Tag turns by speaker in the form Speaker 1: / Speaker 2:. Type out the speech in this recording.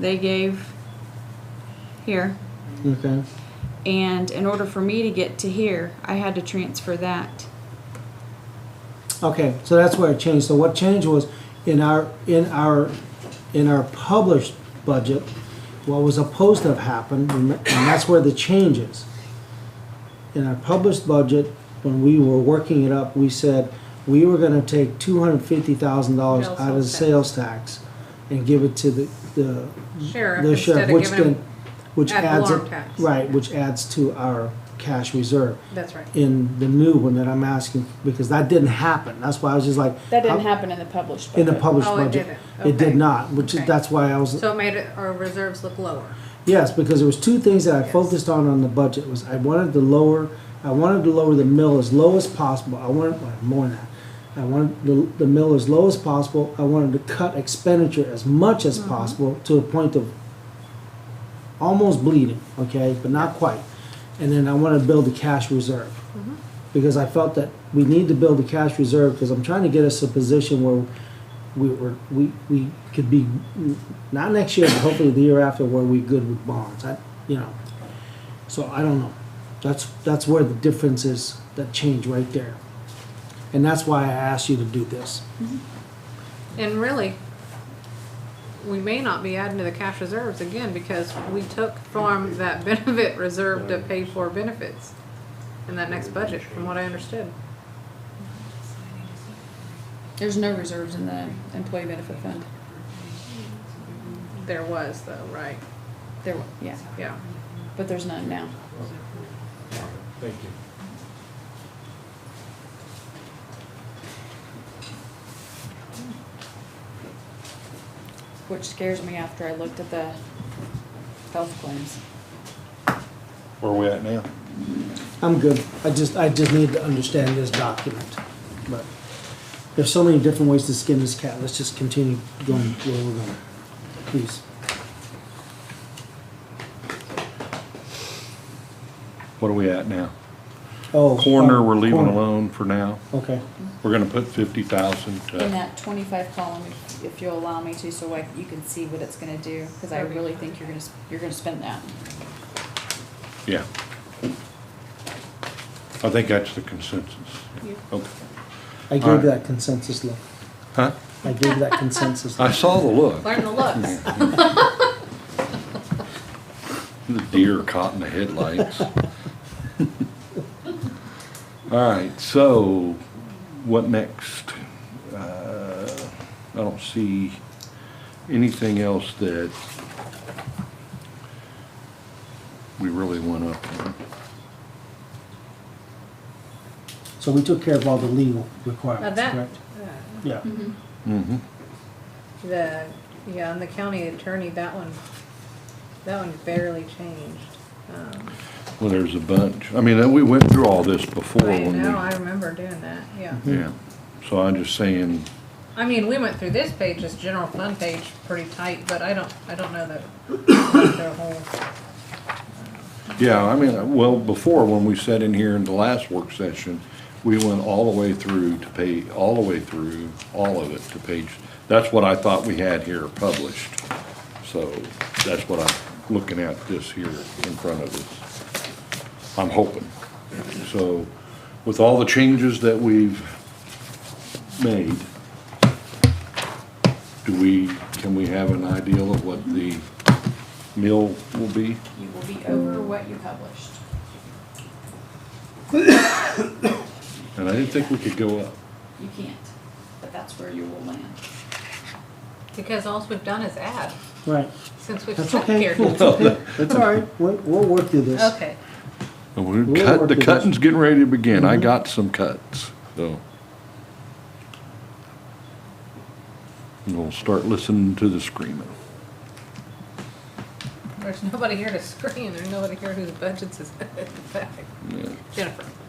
Speaker 1: they gave here.
Speaker 2: Okay.
Speaker 1: And in order for me to get to here, I had to transfer that.
Speaker 2: Okay, so that's where it changed. So what changed was in our, in our, in our published budget, what was supposed to have happened, and and that's where the change is. In our published budget, when we were working it up, we said we were gonna take two hundred fifty thousand dollars
Speaker 3: Sales
Speaker 2: out of the
Speaker 3: tax.
Speaker 2: sales tax and give it to the, the,
Speaker 3: Sheriff
Speaker 2: the
Speaker 3: instead
Speaker 2: sheriff,
Speaker 3: of
Speaker 2: which
Speaker 3: giving
Speaker 2: then,
Speaker 3: him,
Speaker 2: which
Speaker 3: ad
Speaker 2: adds,
Speaker 3: valorem
Speaker 2: it-
Speaker 3: tax.
Speaker 2: right, which adds to our cash reserve
Speaker 3: that's right.
Speaker 2: in the new one that I'm asking, because that didn't happen. That's why I was just like.
Speaker 4: That didn't
Speaker 2: how-
Speaker 4: happen in the published budget.
Speaker 2: In the published
Speaker 3: Oh, it
Speaker 2: budget.
Speaker 3: didn't.
Speaker 2: It did
Speaker 3: Okay.
Speaker 2: not, which is,
Speaker 3: Okay.
Speaker 2: that's why I was,
Speaker 3: So it made it- our reserves look lower.
Speaker 2: yes, because there was two things that I
Speaker 3: Yes.
Speaker 2: focused on on the budget was I wanted to lower, I wanted to lower the mill as low as possible. I wanted, well, more than that. I wanted the, the mill as low as possible. I wanted to cut expenditure as much
Speaker 3: Mm-hmm.
Speaker 2: as possible to a point of almost bleeding, okay, but not quite. And then I want to build a cash reserve.
Speaker 3: Mm-hmm.
Speaker 2: Because I felt that we need to build a cash reserve, because I'm trying to get us a position where we were, we, we could be, not next year, but hopefully the year after, where we good with bonds, I, you know. So I don't know. That's, that's where the difference is, that change right there. And that's why I asked you to do this.
Speaker 3: And really, we may not be adding to the cash reserves again because we took from that benefit reserve to pay for benefits in that next budget, from what I understood.
Speaker 4: There's no reserves in the employee benefit fund.
Speaker 3: There was though, right?
Speaker 4: There, wa- yeah,
Speaker 3: Yeah.
Speaker 4: but there's none now.
Speaker 5: Thank you.
Speaker 4: Which scares me after I looked at the health claims.
Speaker 6: Where are we at now?
Speaker 2: I'm good. I just, I just need to understand this document. But there's so many different ways to skin this cat. Let's just continue going where we're going. Please.
Speaker 6: What are we at now?
Speaker 2: Oh.
Speaker 6: Corner,
Speaker 2: uh,
Speaker 6: we're leaving
Speaker 2: corner.
Speaker 6: alone for now.
Speaker 2: Okay.
Speaker 6: We're gonna put fifty thousand uh,
Speaker 4: In
Speaker 6: to,
Speaker 4: that twenty-five column, if- if you'll allow me to, so I, you can see what it's gonna do, cause I
Speaker 3: That'd be
Speaker 4: really think you're gonna, s- you're gonna spend that.
Speaker 6: yeah. I think that's the consensus.
Speaker 3: Yeah.
Speaker 6: Okay.
Speaker 2: I
Speaker 6: All
Speaker 2: gave
Speaker 6: right.
Speaker 2: that consensus look.
Speaker 6: Huh?
Speaker 2: I gave that consensus
Speaker 6: I
Speaker 2: look.
Speaker 6: saw the look.
Speaker 3: Learn the looks.
Speaker 6: The deer caught in the headlights. All right, so what next? Uh, I don't see anything else that we really went up on.
Speaker 2: So we took care of all the legal
Speaker 3: Now
Speaker 2: requirements,
Speaker 3: that,
Speaker 2: correct?
Speaker 3: uh,
Speaker 2: Yeah.
Speaker 6: Mm-hmm.
Speaker 3: the, yeah, and the county attorney, that one, that one barely changed. Um,
Speaker 6: Well, there's a bunch. I mean, we went through all this before
Speaker 3: I
Speaker 6: when
Speaker 3: know, I
Speaker 6: we,
Speaker 3: remember doing that, yeah.
Speaker 6: yeah. So I'm just saying,
Speaker 3: I mean, we went through this page, this general fund page, pretty tight, but I don't, I don't know that, their whole,
Speaker 6: yeah, I mean, well, before, when we sat in here in the last work session, we went all the way through to pay, all the way through, all of it to page, that's what I thought we had here published. So that's what I'm looking at this here in front of us. I'm hoping. So with all the changes that we've made, do we, can we have an ideal of what the mill will be?
Speaker 4: You will be over what you published.
Speaker 6: And I didn't think we could go up.
Speaker 4: You can't, but that's where you will land.
Speaker 3: because all we've done is add,
Speaker 2: Right.
Speaker 3: since we've
Speaker 2: That's
Speaker 3: sat
Speaker 2: okay.
Speaker 3: here.
Speaker 2: It's okay. It's all right. We'll, we'll work through this.
Speaker 3: Okay,
Speaker 6: We
Speaker 2: We'll
Speaker 6: cut,
Speaker 2: work
Speaker 6: the
Speaker 2: with this.
Speaker 6: cutting's getting ready to begin. I got some cuts, so. And we'll start listening to the screaming.
Speaker 3: there's nobody here to scream, there's nobody here whose budgets is,
Speaker 6: Yeah.
Speaker 3: Jennifer.